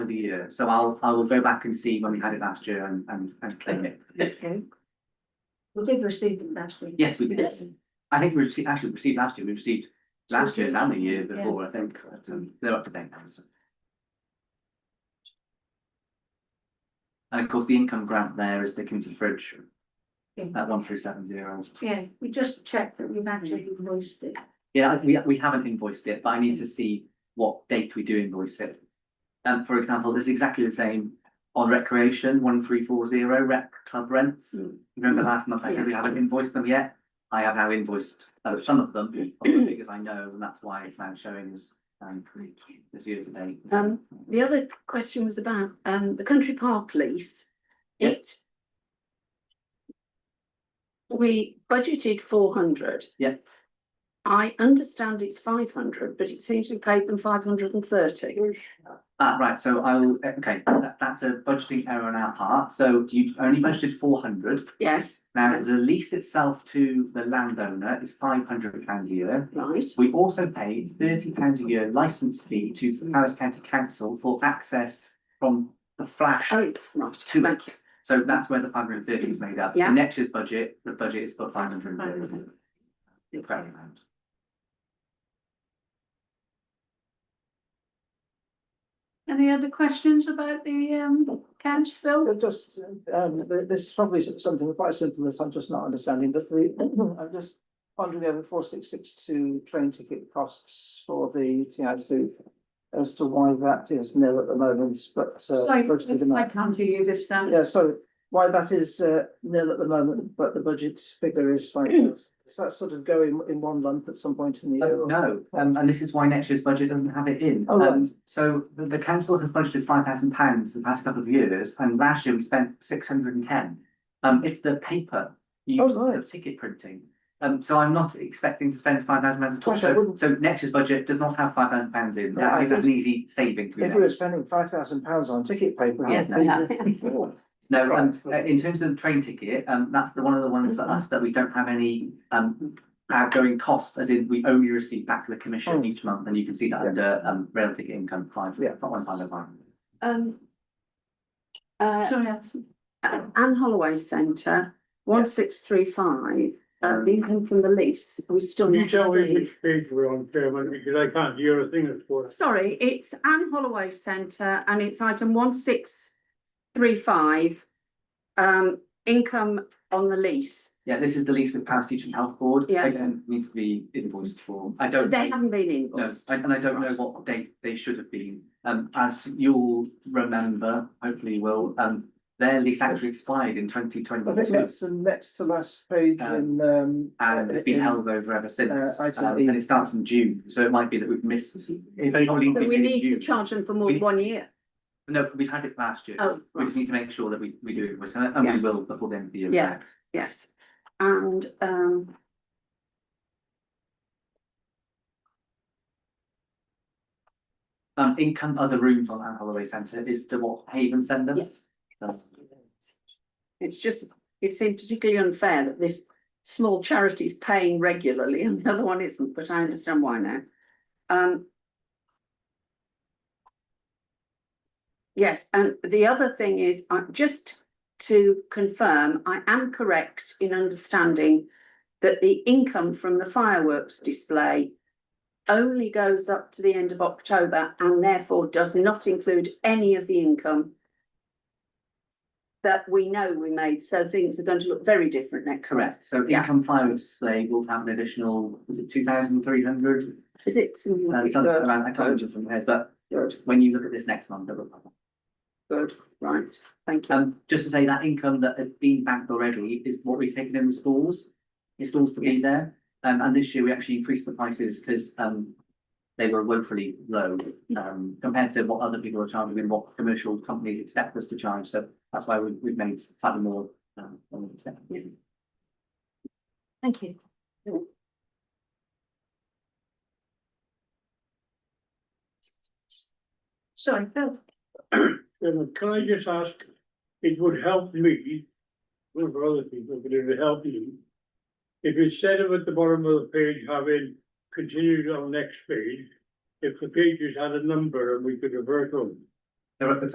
the year, so I'll, I will go back and see when we had it last year and, and, and claim it. Okay. We did receive it last week. Yes, we did. Yes. I think we received, actually received last year, we received last year's and the year Yeah. before, I think, but, um, they're up to date now, so. And of course, the income grant there is the community fridge, Yeah. at one three seven zero. Yeah, we just checked that we've actually Mm. voiced it. Yeah, I- we, we haven't invoiced it, but I need to see what date we do invoice it. And for example, it's exactly the same on recreation, one three four zero rec club rents. Hmm. Mm. Remember last month I said we Yes. haven't invoiced them yet? I have now invoiced uh, some of Hmm. them, of the figures I know, and that's why it's now showing as um this year to date. Um, The other question was about um the country park lease. Yep. It. We budgeted four hundred. Yep. I understand it's five hundred, but it seems we paid them five hundred and thirty. Ah, right, so I will, okay, that that's a budgeting error on our part, so you only budgeted four hundred. Yes. Now, yes, the lease itself to the landowner is five hundred pounds a year. Right, We also pay thirty pounds a year licence fee to the Paris County Council for access from the flash. oh, right, Two. thank you. So that's where the five hundred and thirty is made up. Yeah. In Next year's budget, the budget is for five hundred and thirty. Any other questions about the um council bill? Well, Just, um, th- this is probably s- something quite simple that I'm just not understanding, but the, I'm just pondering over four six six two train ticket costs for the TIC. As to why that is nil at the moment, but. uh, Sorry, budgeted I amount- can't hear you this um, time. Yeah, so why that is uh, nil at the moment, but the budget figure is five. Is that sort of going in one lump at some point in the year? or- No, um, and this is why next year's budget doesn't have it in. Oh, right. Um, So the, the council has budgeted five thousand pounds the past couple of years, and last year we spent six hundred and ten. Um, it's the paper, Oh, used for right. ticket printing. Um, so I'm not expecting to spend five thousand pounds at all, Gosh, I so, wouldn't- so next year's budget does not have five thousand pounds in, Yeah, I I think that's an easy saving to be If made. we were spending five thousand pounds on ticket paper. Yeah, I'd be- Oh, no. No, um, Right. Mm-hmm. uh, in terms of the train ticket, um, that's the one of the ones for us that we don't have any, um, outgoing cost, as in we only receive back to the commission Oh. each month, and you can see that Yeah. under, um, rail ticket income five, Yeah. one five oh five. Um. Uh, Sorry, I'm- Anne Holloway Centre, one six three five, uh, the income from the lease, we still. Can you not tell me received. which page we're on, Chairman, because I can't hear a thing that's for us. Sorry, it's Anne Holloway Centre and it's item one six three five. Um, income on the lease. Yeah, this is the lease with Paris Teaching Health Board. Yes. Again, Needs to be invoiced for, I don't. They haven't been No, invoiced. I- and I don't know what date they should have been. Um, as you'll remember, hopefully you will, um, their lease actually expired in twenty I think twenty-two. that's the next to last page in, um. And it's been in- held over ever since, Uh, item um, E. and it starts in June, so it might be that we've missed. it might only So be we in need to June. charge them for more We- than one year. No, we've had it last year, Oh, we just right. need to make sure that we, we do it, with- and we Yes. will before the end of the year. Yeah. Yes, and um. Um, income other rooms on Anne Holloway Centre is to what Haven send us? Yes. that's- It's just, it seemed particularly unfair that this small charity is paying regularly and the other one isn't, but I understand why now. Um. Yes, and the other thing is, I just to confirm, I am correct in understanding that the income from the fireworks display only goes up to the end of October and therefore does not include any of the income that we know we made, so things are going to look very different next. month. Correct, so Yeah. income files, they will have an additional, was it two thousand three hundred? Uh, Is it something? I like can't that? I can't remember from here, but Good, when you look at this next month, it will come. good, right, thank you. Um, just to say that income that had been banked already is what we've taken in the stores, the stores to be Yes. there. Um, and this year we actually increased the prices because, um, they were woefully low, um, compared to what other people are charging and what commercial companies expect us to charge. So that's why we, we've made slightly more, um, than we expected. Thank you. Sorry, Bill. Chairman, can I just ask, it would help me, well, for other people, but it would help you. If instead of at the bottom of the page having continued on next page, if the pages had a number and we could revert them. They're at the